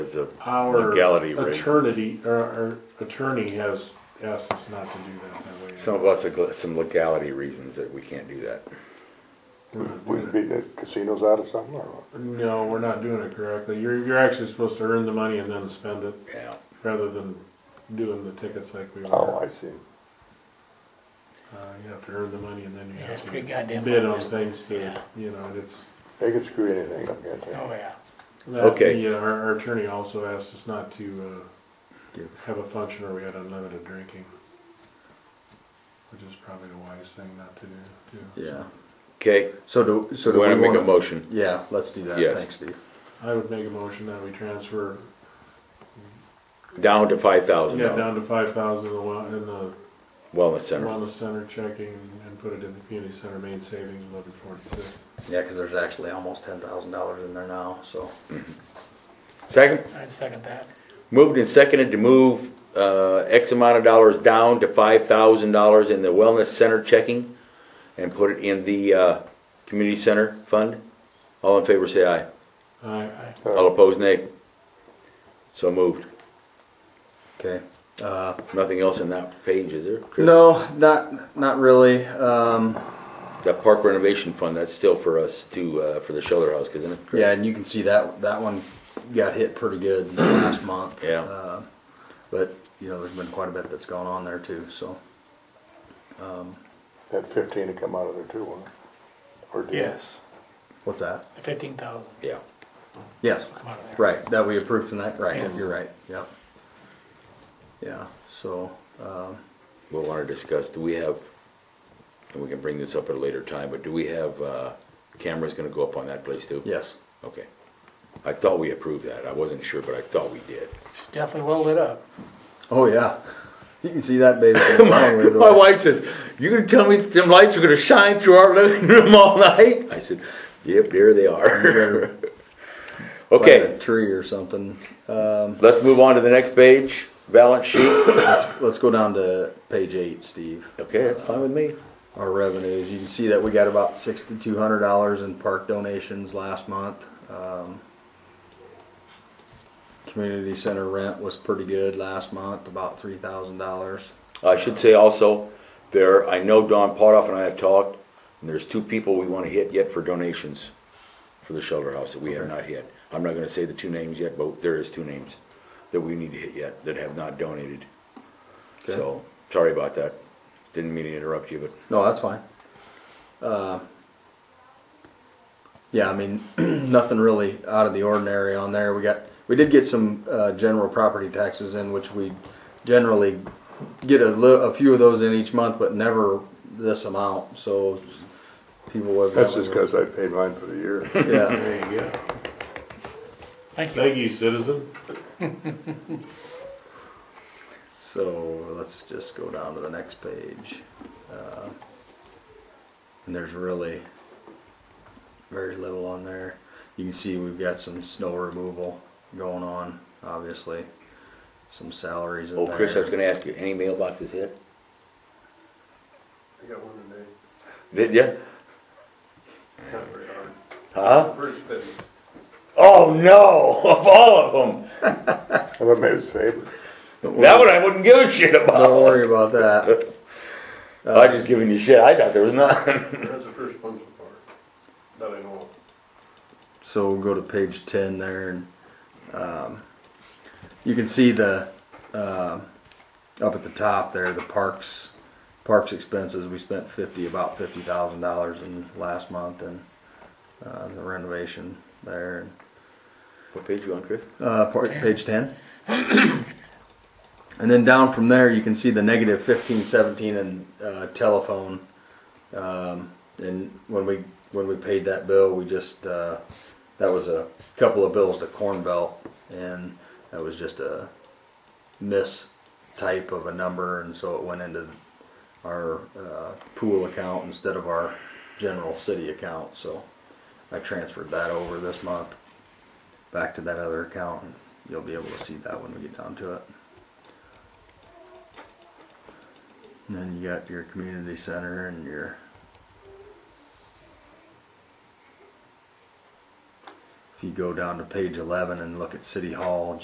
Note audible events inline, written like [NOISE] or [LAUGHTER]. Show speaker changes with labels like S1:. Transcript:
S1: As a
S2: Our
S1: legality reasons.
S2: attorney, our, our attorney has asked us not to do that that way.
S1: Some of us, have gl- some legality reasons that we can't do that.
S2: We're not doing
S3: We'd be the casinos out or something, or what?
S2: it. No, we're not doing it correctly. You're, you're actually supposed to earn the money and then spend it
S1: Yeah.
S2: rather than doing the tickets like we were.
S3: Oh, I see.
S2: Uh, you have to earn the money and then you
S4: Yeah,
S2: have
S4: it's
S2: to
S4: pretty goddamn
S2: bid
S4: hard.
S2: on things to,
S4: Yeah.
S2: you know, and it's.
S3: They could screw anything up, can't they?
S4: Oh, yeah.
S2: that-
S1: Okay.
S2: Yeah, our, our attorney also asked us not to, uh,
S1: Do.
S2: have a function where we had unlimited drinking. Which is probably the wise thing not to do, too.
S5: Yeah.
S1: Okay,
S5: So do, so do
S1: want
S5: we
S1: to make a
S5: wanna-
S1: motion?
S5: Yeah, let's do that.
S1: Yes.
S5: Thanks, Steve.
S2: I would make a motion that we transfer,
S1: Down to five thousand
S2: yeah,
S1: dollars,
S2: down to five thousand in the
S1: wellness center.
S2: wellness center checking and put it in the community center main savings eleven forty-six.
S5: Yeah, because there's actually almost ten thousand dollars in there now, so.
S1: Second,
S4: I'd second that.
S1: moved and seconded to move, uh, X amount of dollars down to five thousand dollars in the wellness center checking and put it in the, uh, community center fund. All in favor, say aye.
S2: I,
S1: All
S3: Uh,
S1: opposed, nay. So moved.
S5: Okay. Uh,
S1: Nothing else in that page, is there? Chris?
S5: no, not, not really. Um,
S1: That park renovation fund, that's still for us to, uh, for the shelter house, isn't it?
S5: yeah, and you can see that, that one got hit pretty good last month.
S1: Yeah.
S5: Uh, But, you know, there's been quite a bit that's gone on there too, so.
S3: That fifteen to come out of there too, wouldn't it? Or do you-
S5: What's that?
S4: The fifteen thousand,
S1: Yeah.
S5: Yes,
S4: come out of there.
S5: right, that we approved tonight, right,
S4: Yes.
S5: you're right, yep. Yeah, so, um,
S1: We'll want to discuss, do we have, and we can bring this up at a later time, but do we have, uh, cameras gonna go up on that place too?
S5: yes.
S1: Okay. I thought we approved that. I wasn't sure, but I thought we did.
S4: It's definitely well lit up.
S5: Oh, yeah. [LAUGHS] You can see that baby.
S1: [LAUGHS] My wife says, you gonna tell me them lights are gonna shine through our living room all night? I said, yep, there they are. [LAUGHS]
S5: Like
S1: Okay,
S5: a tree or something. Um,
S1: let's move on to the next page, balance sheet.
S5: let's, let's go down to page eight, Steve.
S1: Okay, that's fine with me.
S5: Our revenues. You can see that we got about sixty-two hundred dollars in park donations last month. Um, community center rent was pretty good last month, about three thousand dollars.
S1: I should say also, there, I know Don Potoff and I have talked, and there's two people we wanna hit yet for donations for the shelter house that we have not hit. I'm not gonna say the two names yet, but there is two names that we need to hit yet that have not donated.
S5: Okay.
S1: So, sorry about that. Didn't mean to interrupt you, but
S5: No, that's fine. Uh, yeah, I mean, [CLEARS THROAT] nothing really out of the ordinary on there. We got, we did get some uh, general property taxes in, which we generally get a, li- a few of those in each month, but never this amount. So people.
S3: That's just
S5: evidently
S3: because I paid mine for the year.
S5: were- [LAUGHS] Yeah,
S2: There you go.
S4: Thank you.
S2: Thank you, citizen.
S5: so let's just go down to the next page. Uh, and there's really very little on there. You can see we've got some snow removal going on, obviously. Some salaries in
S1: Oh,
S5: there.
S1: Chris, I was gonna ask you, any mailboxes hit?
S6: I got one today,
S1: Did ya?
S6: not very hard,
S1: Huh?
S6: Bruce busy.
S1: Oh, no, [LAUGHS] of all of
S3: I thought maybe it's favored.
S1: them. That one I wouldn't give a shit
S5: Don't
S1: about.
S5: worry about that.
S1: I was just giving you shit. I thought there was none.
S6: That's the first one so far, that I know of.
S5: So we'll go to page ten there, and um, you can see the um up at the top there the parks parks expenses. We spent fifty about fifty thousand dollars in last month, and uh, the renovation there.
S1: What page you on, Chris?
S5: Uh, part, page 10. and then down from there, you can see the negative 15, 17, and uh, telephone. Um, and when we when we paid that bill, we just uh, that was a couple of bills to Corn Belt, and that was just a miss type of a number, and so it went into our uh, pool account instead of our general city account. So I transferred that over this month back to that other account and you'll be able to see that when we get down to it. And then you got your community center and your If you go down to page eleven and look at City Hall,